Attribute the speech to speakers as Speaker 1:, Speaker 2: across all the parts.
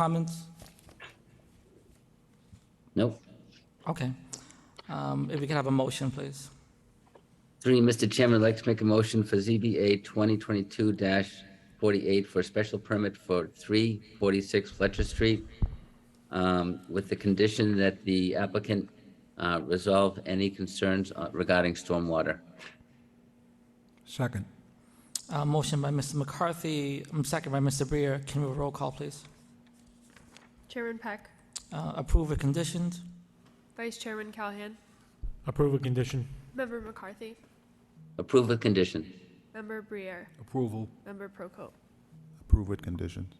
Speaker 1: comments?
Speaker 2: Nope.
Speaker 1: Okay. Um, If we can have a motion, please.
Speaker 2: Three, Mr. Chairman, I'd like to make a motion for ZBA 2022-48 for a special permit for 346 Fletcher Street um, with the condition that the applicant uh, resolve any concerns uh, regarding stormwater.
Speaker 3: Second.
Speaker 1: Uh, Motion by Mr. McCarthy, um, second by Mr. Brier. Can we have a roll call, please?
Speaker 4: Chairman Peck,
Speaker 1: Uh, Approve with conditions?
Speaker 4: Vice Chairman Callahan,
Speaker 5: Approve a condition.
Speaker 4: Member McCarthy,
Speaker 2: Approve with condition.
Speaker 4: Member Briere,
Speaker 3: Approval.
Speaker 4: Member Procope.
Speaker 6: Approve with conditions.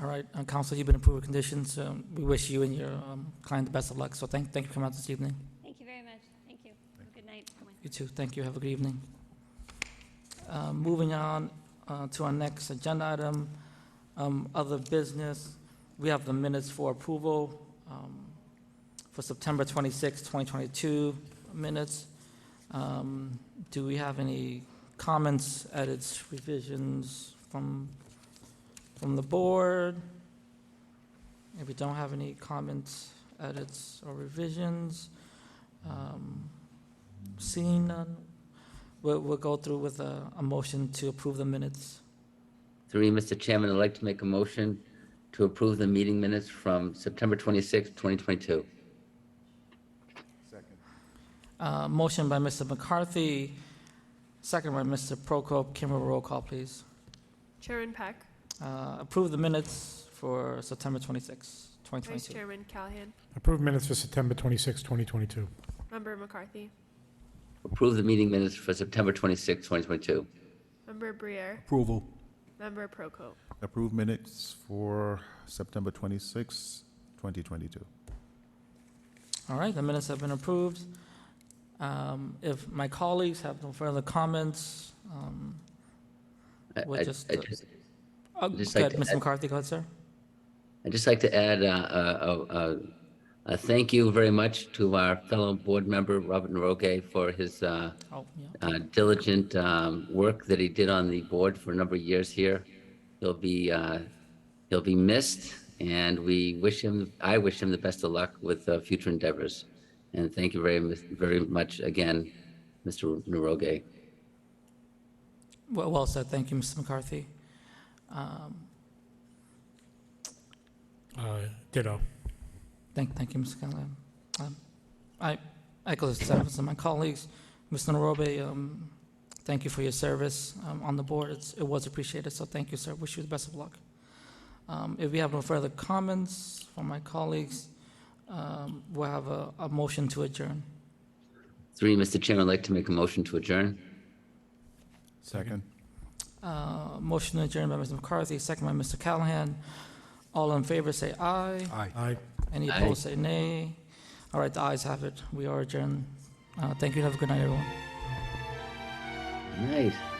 Speaker 1: All right, uh, Council, you've been approved with conditions. Um, We wish you and your um, client the best of luck, so thank, thank you for coming out this evening.
Speaker 7: Thank you very much. Thank you. Have a Good night. everyone.
Speaker 1: You too, thank you, have a good evening. Uh, Moving on uh, to our next agenda item, um, other business. We have the minutes for approval um, for September 26, 2022 minutes. Um, Do we have any comments, edits, revisions from, from the board? If we don't have any comments, edits, or revisions, um, Seeing none, we'll, we'll go through with a, a motion to approve the minutes.
Speaker 2: Three, Mr. Chairman, I'd like to make a motion to approve the meeting minutes from September 26, 2022.
Speaker 1: Uh, motion by Mr. McCarthy, second by Mr. Prokop. Can we have a roll call, please?
Speaker 4: Chairman Peck,
Speaker 1: Uh, approve the minutes for September 26,
Speaker 4: Vice
Speaker 1: 2022.
Speaker 4: Chairman Callahan,
Speaker 5: Approve minutes for September 26, 2022.
Speaker 4: Member McCarthy,
Speaker 2: Approve the meeting minutes for September 26, 2022.
Speaker 4: Member Briere,
Speaker 3: Approval.
Speaker 4: Member Procope.
Speaker 6: Approve minutes for September 26, 2022.
Speaker 1: All right, the minutes have been approved. Um, if my colleagues have no further comments, um,
Speaker 2: I-
Speaker 1: We'll
Speaker 2: I-
Speaker 1: just,
Speaker 2: I
Speaker 1: uh,
Speaker 2: just-
Speaker 1: oh,
Speaker 2: Just
Speaker 1: go
Speaker 2: like
Speaker 1: ahead,
Speaker 2: to
Speaker 1: Mr.
Speaker 2: add-
Speaker 1: McCarthy, go ahead, sir.
Speaker 2: I'd just like to add uh, a, a, a, a thank you very much to our fellow board member, Robert Naroge, for his uh,
Speaker 1: Oh, yeah.
Speaker 2: uh, diligent um, work that he did on the board for a number of years here. He'll be, uh, he'll be missed, and we wish him, I wish him the best of luck with uh, future endeavors. And thank you very, mu- very much again, Mr. Naroge.
Speaker 1: Well, well said. Thank you, Mr. McCarthy. Um,
Speaker 5: Uh, Ditto.
Speaker 1: Thank, thank you, Mr. Callahan. Um, I echo the sentiments of my colleagues. Mr. Narobe, um, thank you for your service um, on the board. It's- It was appreciated, so thank you, sir. Wish you the best of luck. Um, If we have no further comments from my colleagues, um, we'll have a a motion to adjourn.
Speaker 2: Three, Mr. Chairman, I'd like to make a motion to adjourn.
Speaker 6: Second.
Speaker 1: Uh, Motion to adjourn by Mr. McCarthy, second by Mr. Callahan. All in favor, say aye.
Speaker 3: Aye.
Speaker 5: Aye.
Speaker 1: Any
Speaker 2: Aye.
Speaker 1: opposed, say nay. All right, the ayes have it. We are adjourned. Uh, Thank you. Have a good night, everyone.
Speaker 2: Nice.